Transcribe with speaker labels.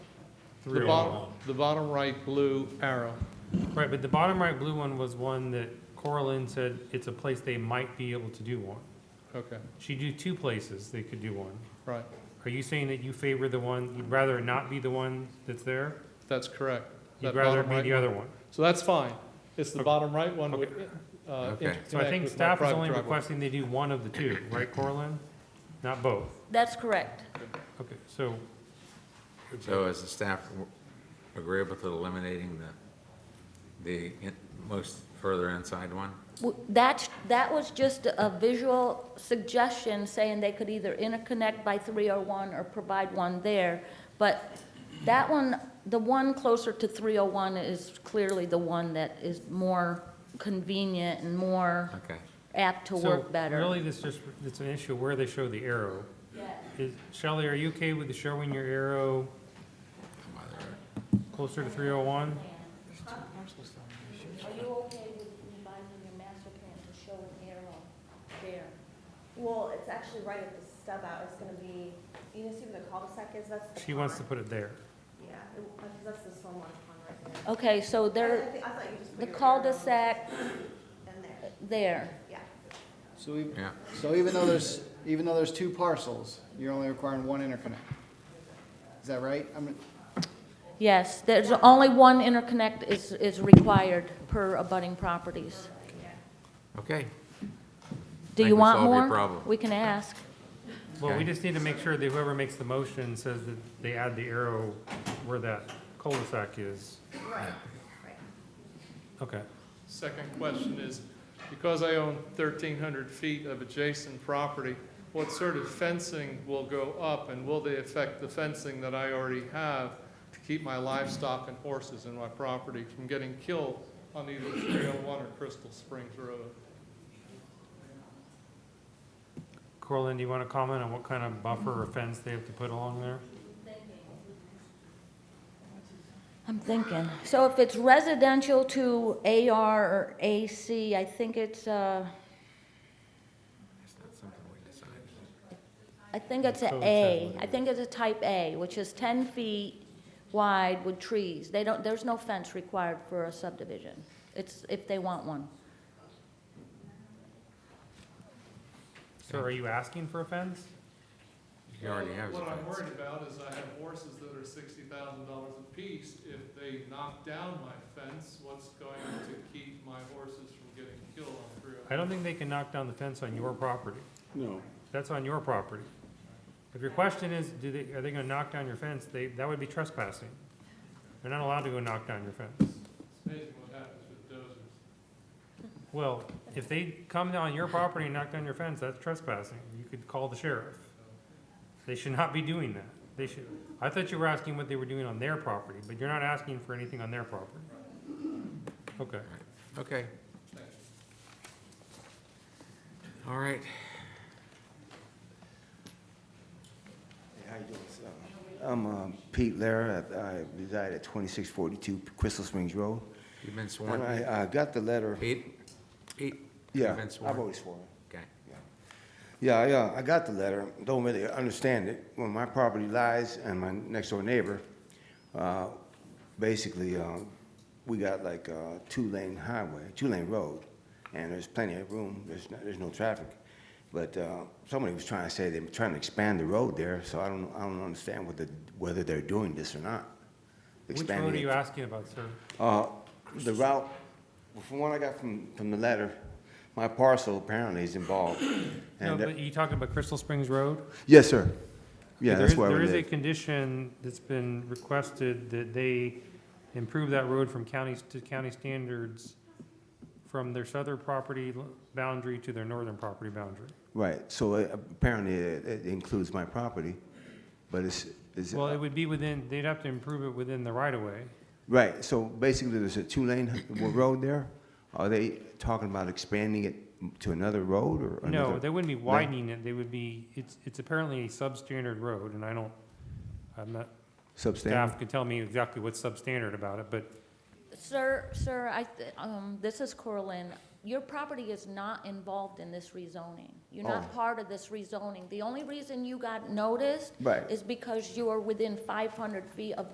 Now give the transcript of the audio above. Speaker 1: The bottom, the bottom right blue arrow.
Speaker 2: Right, but the bottom right blue one was one that Coraline said it's a place they might be able to do one.
Speaker 1: Okay,
Speaker 2: She do two places they could do one.
Speaker 1: right.
Speaker 2: Are you saying that you favor the one, you'd rather it not be the one that's there?
Speaker 1: That's correct.
Speaker 2: You'd
Speaker 1: That
Speaker 2: rather it
Speaker 1: bottom
Speaker 2: be
Speaker 1: right
Speaker 2: the
Speaker 1: one.
Speaker 2: other one?
Speaker 1: So that's fine. It's the
Speaker 2: Okay.
Speaker 1: bottom right one would,
Speaker 2: Okay.
Speaker 1: uh,
Speaker 3: Okay.
Speaker 1: interconnect
Speaker 2: So I think
Speaker 1: with my
Speaker 2: staff is
Speaker 1: private
Speaker 2: only
Speaker 1: driveway.
Speaker 2: requesting they do one of the two, right, Coraline? Not both.
Speaker 4: That's correct.
Speaker 2: Okay, so,
Speaker 3: So is the staff w- agreeable to eliminating the, the in- most further inside one?
Speaker 4: W- That, that was just a visual suggestion saying they could either interconnect by 301 or provide one there. But that one, the one closer to 301 is clearly the one that is more convenient and more
Speaker 3: Okay.
Speaker 4: apt to
Speaker 2: so
Speaker 4: work better.
Speaker 2: really this just, it's an issue where they show the arrow. Is, Shelley, are you okay with showing your arrow
Speaker 3: Come on, there.
Speaker 2: closer to 301?
Speaker 4: Are you okay with revising your master plan to show an arrow there?
Speaker 5: Well, it's actually right at the stub out, it's gonna be, you know, see where the cul-de-sac is, that's the
Speaker 2: She wants to
Speaker 5: pond.
Speaker 2: put it there.
Speaker 5: Yeah, it- uh, 'cause that's the stormwater pond right there.
Speaker 4: Okay, so
Speaker 5: I- I
Speaker 4: there,
Speaker 5: thi- I thought you just put
Speaker 4: the
Speaker 5: your arrow
Speaker 4: cul-de-sac
Speaker 5: In there,
Speaker 4: there.
Speaker 5: yeah.
Speaker 6: So even,
Speaker 3: Yeah,
Speaker 6: so even though there's, even though there's two parcels, you're only requiring one interconnect? Is that right? I mean,
Speaker 4: Yes, there's only one interconnect is, is required per abutting properties.
Speaker 3: okay.
Speaker 4: Do
Speaker 3: Think
Speaker 4: you
Speaker 3: we
Speaker 4: want
Speaker 3: solved your
Speaker 4: more?
Speaker 3: problem.
Speaker 4: We can ask.
Speaker 2: Well, we
Speaker 3: Okay.
Speaker 2: just need to make sure that whoever makes the motion says that they add the arrow where that cul-de-sac is.
Speaker 5: Right, right.
Speaker 2: Okay.
Speaker 1: Second question is, because I own 1,300 feet of adjacent property, what sort of fencing will go up, and will they affect the fencing that I already have to keep my livestock and horses in my property from getting killed on either 301 or Crystal Springs Road?
Speaker 2: Corlin, do you want to comment on what kind of buffer or fence they have to put along there?
Speaker 4: I'm thinking. So if it's residential to AR or AC, I think it's, uh,
Speaker 3: It's not something we decided.
Speaker 4: I think it's a
Speaker 2: Code
Speaker 4: A.
Speaker 2: says
Speaker 4: I think it's a type A, which is ten feet wide with trees. They don't, there's no fence required for a subdivision. It's if they want one.
Speaker 2: So are you asking for a fence?
Speaker 3: You already have the
Speaker 1: What I'm
Speaker 3: fence.
Speaker 1: worried about is I have horses that are sixty thousand dollars apiece. If they knock down my fence, what's going to keep my horses from getting killed on three
Speaker 2: I
Speaker 1: oh?
Speaker 2: don't think they can knock down the fence on your property.
Speaker 7: No,
Speaker 2: That's on your property. If your question is, do they, are they going to knock down your fence, they, that would be trespassing. They're not allowed to go knock down your fence.
Speaker 1: It's amazing what happens with dozers.
Speaker 2: Well, if they come on your property and knock down your fence, that's trespassing. You could call the sheriff. They should not be doing that. They should, I thought you were asking what they were doing on their property, but you're not asking for anything on their property. Okay.
Speaker 3: Okay. All right.
Speaker 8: How you doing, sir? I'm um, Pete Lara. I I reside at 2642 Crystal Springs Road.
Speaker 3: You've been
Speaker 8: And
Speaker 3: sworn.
Speaker 8: I I got the letter.
Speaker 3: Pete? Pete?
Speaker 8: Yeah,
Speaker 3: You've been
Speaker 8: I've
Speaker 3: sworn.
Speaker 8: always sworn.
Speaker 3: Okay.
Speaker 8: Yeah, I, uh, I got the letter, don't really understand it. When my property lies and my next door neighbor, uh, basically, um, we got like a two-lane highway, two-lane road, and there's plenty of room, there's, no- there's no traffic. But, uh, somebody was trying to say they were trying to expand the road there, so I don't, I don't understand whether, whether they're doing this or not.
Speaker 2: Which
Speaker 8: Expanding
Speaker 2: road are
Speaker 8: it.
Speaker 2: you asking about, sir?
Speaker 8: Uh, The route, from what I got from, from the letter, my parcel apparently is involved.
Speaker 2: No,
Speaker 8: and, uh,
Speaker 2: but you talking about Crystal Springs Road?
Speaker 8: Yes, sir. Yeah,
Speaker 2: There
Speaker 8: that's
Speaker 2: is-
Speaker 8: where
Speaker 2: There
Speaker 8: we
Speaker 2: is a
Speaker 8: live.
Speaker 2: condition that's been requested that they improve that road from counties to county standards from their southern property l- boundary to their northern property boundary.
Speaker 8: Right, so uh, apparently it it includes my property, but it's, it's, uh,
Speaker 2: Well, it would be within, they'd have to improve it within the right of way.
Speaker 8: right, so basically there's a two-lane road there? Are they talking about expanding it to another road or
Speaker 2: No,
Speaker 8: another?
Speaker 2: they wouldn't be widening it, they would be, it's, it's apparently a substandard road, and I don't, I'm not,
Speaker 8: Substandard?
Speaker 2: staff could tell me exactly what's substandard about it, but
Speaker 4: Sir, sir, I, th- um, this is Corlin. Your property is not involved in this rezoning. You're not
Speaker 8: Oh.
Speaker 4: part of this rezoning. The only reason you got noticed
Speaker 8: Right.
Speaker 4: is because you are within five hundred feet of